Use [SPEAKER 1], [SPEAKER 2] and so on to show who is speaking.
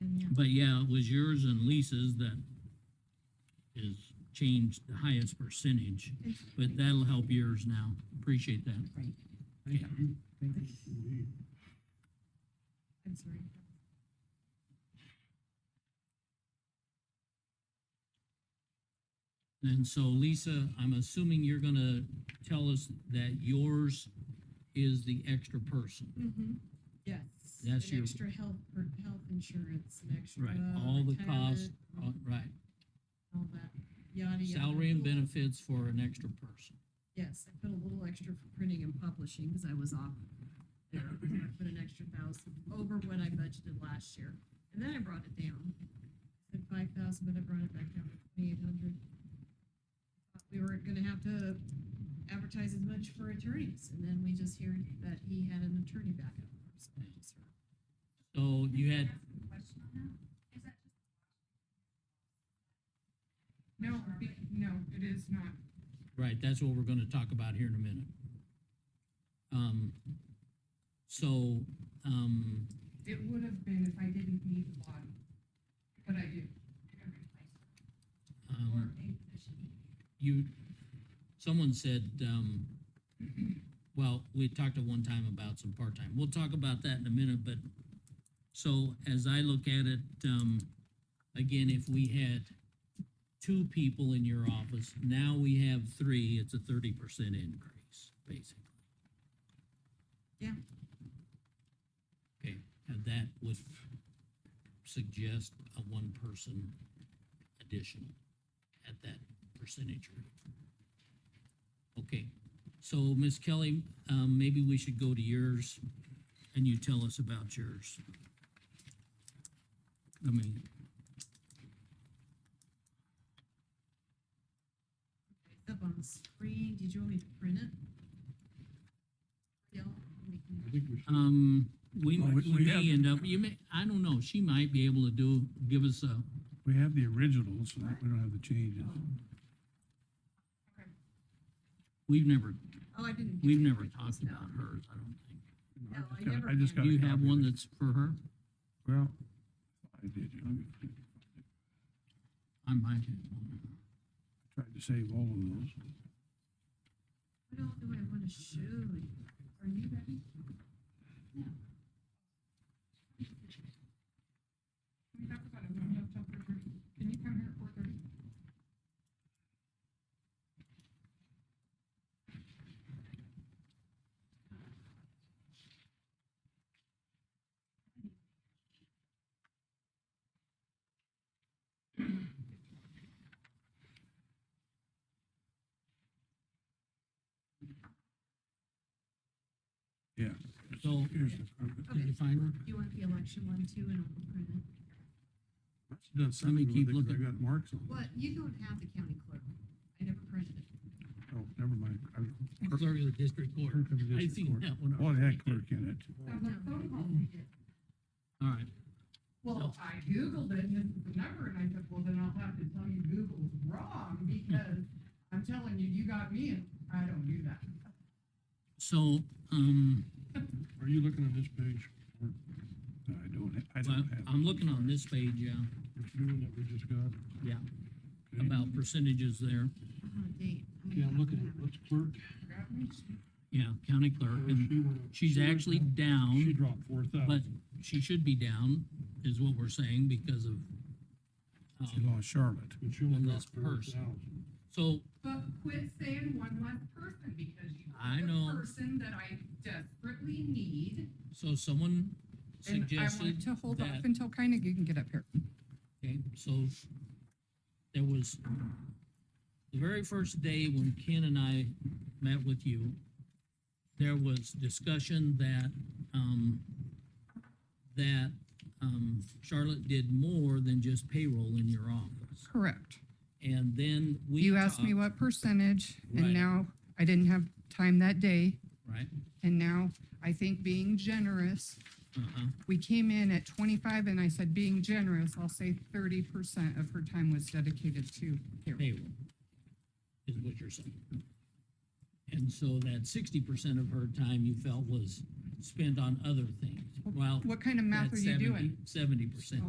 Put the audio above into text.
[SPEAKER 1] Yeah.
[SPEAKER 2] But yeah, it was yours and Lisa's that is changed the highest percentage, but that'll help yours now. Appreciate that.
[SPEAKER 1] Right.
[SPEAKER 2] Okay.
[SPEAKER 1] I'm sorry.
[SPEAKER 2] And so Lisa, I'm assuming you're gonna tell us that yours is the extra person.
[SPEAKER 1] Mhm. Yes.
[SPEAKER 2] That's
[SPEAKER 1] an
[SPEAKER 2] your-
[SPEAKER 1] Extra health, per- health insurance, an extra.
[SPEAKER 2] Right, all the costs,
[SPEAKER 1] retirement,
[SPEAKER 2] uh, right,
[SPEAKER 1] All that, yada, yada.
[SPEAKER 2] salary and
[SPEAKER 1] Little-
[SPEAKER 2] benefits for an extra person.
[SPEAKER 1] Yes, I put a little extra for printing and publishing because I was off there. So I put an extra thousand over what I budgeted last year. And then I brought it down. I Said five thousand, but I brought it back down to twenty-eight hundred. We weren't gonna have to advertise as much for attorneys, and then we just heard that he had an attorney backup. So I just heard.
[SPEAKER 2] So you had,
[SPEAKER 3] No, be, no, it is not.
[SPEAKER 2] right, that's what we're gonna talk about here in a minute. Um, so, um,
[SPEAKER 3] It would have been if I didn't need the body, but I do.
[SPEAKER 2] um, you, someone said, um, well, we talked at one time about some part-time. We'll talk about that in a minute, but, so as I look at it, um, again, if we had two people in your office, now we have three, it's a thirty percent increase, basically.
[SPEAKER 1] Yeah.
[SPEAKER 2] Okay, and that would suggest a one-person additional at that percentage rate. Okay, so Ms. Kelly, um, maybe we should go to yours and you tell us about yours. I mean,
[SPEAKER 1] It's Up on the screen, did you want me to print it? Yeah, we can-
[SPEAKER 4] I think we should.
[SPEAKER 2] um, we,
[SPEAKER 4] Well, we-
[SPEAKER 2] you
[SPEAKER 4] we
[SPEAKER 2] may
[SPEAKER 4] have-
[SPEAKER 2] end up, you may, I don't know, she might be able to do, give us a,
[SPEAKER 4] We have the originals, so that we don't have the changes.
[SPEAKER 2] we've never,
[SPEAKER 1] Oh, I didn't.
[SPEAKER 2] we've never talked about hers, I don't think.
[SPEAKER 4] No,
[SPEAKER 1] No, I
[SPEAKER 4] just got-
[SPEAKER 1] never
[SPEAKER 4] just
[SPEAKER 1] had.
[SPEAKER 4] got
[SPEAKER 2] Do
[SPEAKER 4] a
[SPEAKER 2] you have
[SPEAKER 4] copy of
[SPEAKER 2] one
[SPEAKER 4] it.
[SPEAKER 2] that's for her?
[SPEAKER 4] Well, I did, let me see.
[SPEAKER 2] I might.
[SPEAKER 4] I tried to save all of those.
[SPEAKER 1] What else do I want to show you? Are you ready?
[SPEAKER 3] Can we talk about it when we have Tucker here? Can you come here at four thirty?
[SPEAKER 4] Yeah.
[SPEAKER 2] So- uh,
[SPEAKER 4] Here's the problem.
[SPEAKER 1] Okay.
[SPEAKER 2] find her?
[SPEAKER 1] You want the election one too, and I'll print it.
[SPEAKER 4] I must've done something with
[SPEAKER 2] keep
[SPEAKER 4] it 'cause
[SPEAKER 2] looking.
[SPEAKER 4] I got marks on it.
[SPEAKER 1] What, you don't have the county clerk. I never printed it.
[SPEAKER 4] Oh, never mind. I-
[SPEAKER 2] Clerk of the district court.
[SPEAKER 4] Clerk of the
[SPEAKER 2] I
[SPEAKER 4] district
[SPEAKER 2] seen
[SPEAKER 4] court.
[SPEAKER 2] that one.
[SPEAKER 4] Well, it had
[SPEAKER 2] already.
[SPEAKER 4] clerk in it.
[SPEAKER 1] Oh,
[SPEAKER 3] Sounds like phone calls we get.
[SPEAKER 2] All right,
[SPEAKER 3] Well, I Googled it, and this is the number, and I said, well, then I'll have to tell you Google's wrong, because I'm telling you, you got me, and I don't do that.
[SPEAKER 2] so, um,
[SPEAKER 4] Are you looking on this page? or- No, I don't, ha- I
[SPEAKER 2] well,
[SPEAKER 4] don't have.
[SPEAKER 2] I'm
[SPEAKER 4] it.
[SPEAKER 2] looking on this page, yeah,
[SPEAKER 4] This new one that we just got.
[SPEAKER 2] Yeah.
[SPEAKER 4] Okay.
[SPEAKER 2] about percentages there.
[SPEAKER 1] I'm on a Uh-huh, date. I mean,
[SPEAKER 4] Yeah, I'm
[SPEAKER 1] I
[SPEAKER 4] looking
[SPEAKER 1] don't
[SPEAKER 4] at
[SPEAKER 1] have it.
[SPEAKER 4] what's clerk.
[SPEAKER 3] Got me?
[SPEAKER 2] Yeah, county clerk,
[SPEAKER 4] Uh,
[SPEAKER 2] and
[SPEAKER 4] she went up-
[SPEAKER 2] she's
[SPEAKER 4] she went
[SPEAKER 2] actually
[SPEAKER 4] down- She
[SPEAKER 2] down,
[SPEAKER 4] dropped four
[SPEAKER 2] but
[SPEAKER 4] thousand.
[SPEAKER 2] she should be down, is what we're saying, because of.
[SPEAKER 4] She
[SPEAKER 2] um,
[SPEAKER 4] lost Charlotte. But she only
[SPEAKER 2] and
[SPEAKER 4] dropped
[SPEAKER 2] that's
[SPEAKER 4] four
[SPEAKER 2] person.
[SPEAKER 4] thousand.
[SPEAKER 2] So,
[SPEAKER 3] But quit saying one less person, because you.
[SPEAKER 2] I
[SPEAKER 3] the
[SPEAKER 2] know.
[SPEAKER 3] Person that I desperately need.
[SPEAKER 2] so someone
[SPEAKER 3] And I
[SPEAKER 2] suggested
[SPEAKER 3] want to hold off
[SPEAKER 2] that-
[SPEAKER 3] until Keinig can get up here.
[SPEAKER 2] Okay, so there was, the very first day when Ken and I met with you, there was discussion that, um, that, um, Charlotte did more than just payroll in your office.
[SPEAKER 3] Correct.
[SPEAKER 2] And then we.
[SPEAKER 3] You asked me
[SPEAKER 2] talked-
[SPEAKER 3] what percentage,
[SPEAKER 2] Right.
[SPEAKER 3] and now I didn't have time that day,
[SPEAKER 2] Right,
[SPEAKER 3] and now I think being generous,
[SPEAKER 2] uh-huh,
[SPEAKER 3] we came in at twenty-five, and I said, being generous, I'll say thirty percent of her time was dedicated to payroll.
[SPEAKER 2] payroll, is what you're saying. And so that sixty percent of her time you felt was spent on other things. Well,
[SPEAKER 3] What kind of math are
[SPEAKER 2] that's
[SPEAKER 3] you doing?
[SPEAKER 2] Seventy percent.